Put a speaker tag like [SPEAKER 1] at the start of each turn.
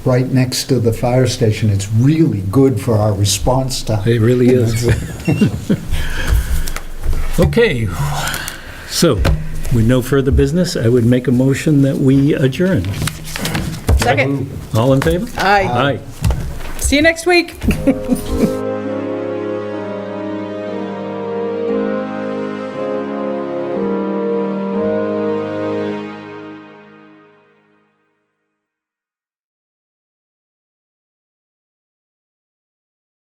[SPEAKER 1] right next to the fire station. It's really good for our response time.
[SPEAKER 2] It really is. Okay, so with no further business, I would make a motion that we adjourn.
[SPEAKER 3] Second.
[SPEAKER 2] All in favor?
[SPEAKER 3] Aye.
[SPEAKER 2] Aye.
[SPEAKER 3] See you next week.